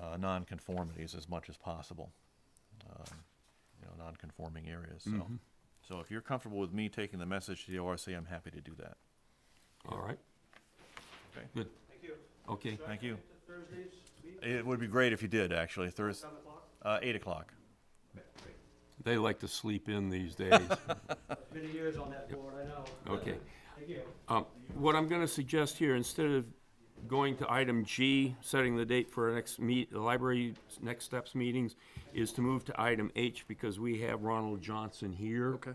uh, nonconformities as much as possible, um, you know, nonconforming areas. So, so if you're comfortable with me taking the message to the ORC, I'm happy to do that. All right, Okay, good. Thank you. Okay, thank you. It would be great if you did actually Thursday. Uh, eight o'clock. they like to sleep in these days. Many years on that board, I know. Okay. Thank you. Um, What I'm gonna suggest here, instead of going to item G, setting the date for our next meet, the library's next steps meetings, is to move to item H, because we have Ronald Johnson here. Okay.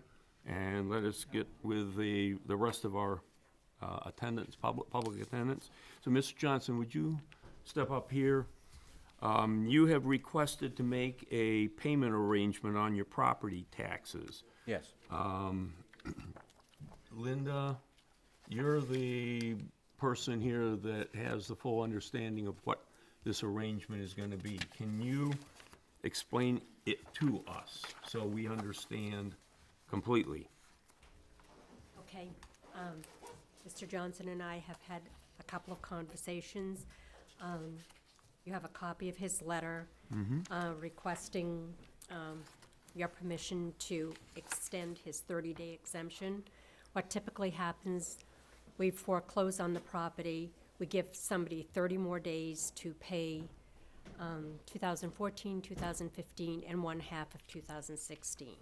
And let us get with the, the rest of our uh, attendance, public, public attendance. So, Mr. Johnson, would you step up here? Um, You have requested to make a payment arrangement on your property taxes. Um, Yes. Linda, you're the person here that has the full understanding of what this arrangement is gonna be. Can you explain it to us so we understand completely? Okay, um, Mr. Johnson and I have had a couple of conversations. Um, you have a copy of his letter, uh, requesting, um, your permission to extend his thirty-day exemption. What typically happens, we foreclose on the property, we give somebody thirty more days to pay, um, 2014, 2015, and one half of two thousand sixteen.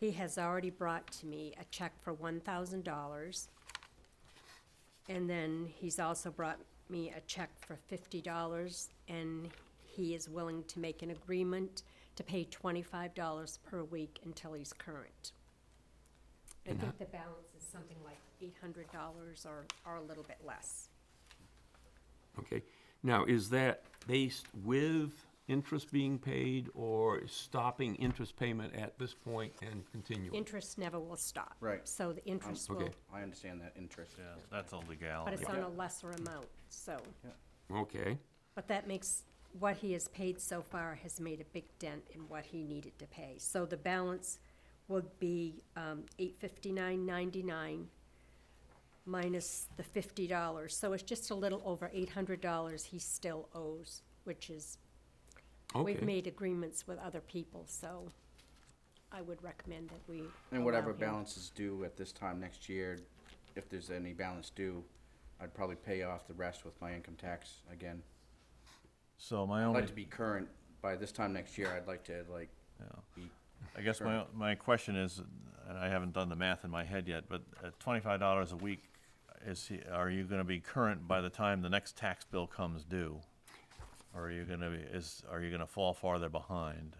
He has already brought to me a check for one thousand dollars. And then he's also brought me a check for fifty dollars, and he is willing to make an agreement to pay twenty-five dollars per week until he's current. I think the balance is something like eight hundred dollars or, or a little bit less. Okay, now, is that based with interest being paid or stopping interest payment at this point and continuing? Interest never will stop. Right. So the interest will, Okay, I understand that interest. Yeah, that's a but legality. it's on a lesser amount, so. okay, But that makes, what he has paid so far has made a big dent in what he needed to pay. So the balance would be um, eight fifty-nine ninety-nine minus the fifty dollars. So it's just a little over eight hundred dollars he still owes, which is, we've okay, made agreements with other people, so I would recommend that we And whatever allow him. balance is due at this time next year, if there's any balance due, I'd probably pay off the rest with my income tax again. So my I'd only, like to be current by this time next year. I'd like to like Yeah. be I guess my, my question is, and I haven't done the math in my head yet, but at twenty-five dollars a week, is, he- are you gonna be current by the time the next tax bill comes due? Or are you gonna be, is, are you gonna fall farther behind?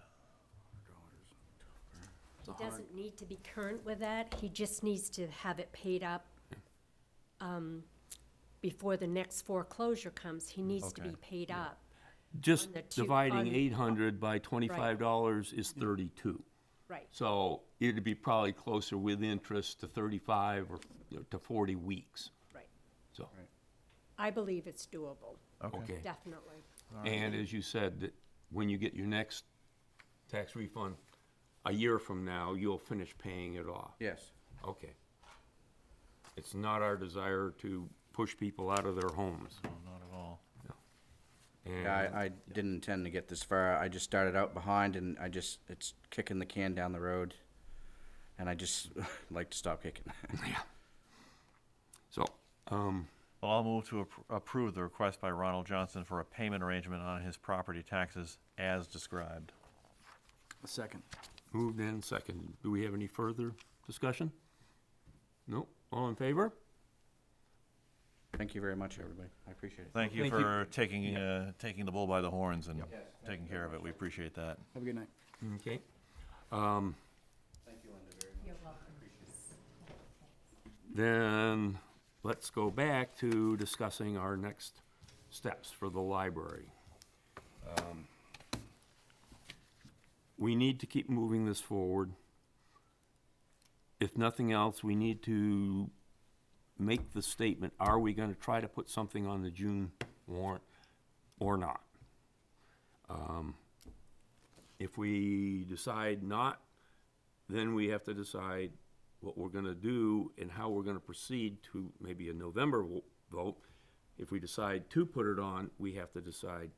He doesn't need to be current with that, he just needs to have it paid up, um, before the next foreclosure comes, he needs to be Okay, paid up. just on the two- on- dividing eight hundred by twenty-five dollars is thirty-two. Right, So it'd be probably closer with interest to 35 or you know, to 40 weeks, right. so, I believe it's doable, okay. definitely. And as you said, that when you get your next tax refund, a year from now, you'll finish paying it off. yes. Okay. It's not our desire to push people out of their homes. No, Not at all. And Yeah, I, I didn't intend to get this far. I just started out behind and I just, it's kicking the can down the road. And I just like to stop kicking. So, um, Well, I'll move to appro- approve the request by Ronald Johnson for a payment arrangement on his property taxes as described. Second. moved and seconded. Do we have any further discussion? No? All in favor? Thank you very much, everybody. I appreciate it. Thank you Thank you. for taking, uh, taking the bull by the horns and taking care of it. We appreciate that. Have a good night. Okay. Um, Thank you, Linda, very much. You're welcome. Then, let's go back to discussing our next steps for the library. Um, We need to keep moving this forward. If nothing else, we need to make the statement, are we gonna try to put something on the June warrant or not? Um, If we decide not, then we have to decide what we're gonna do and how we're gonna proceed to maybe a November wo- vote. If we decide to put it on, we have to decide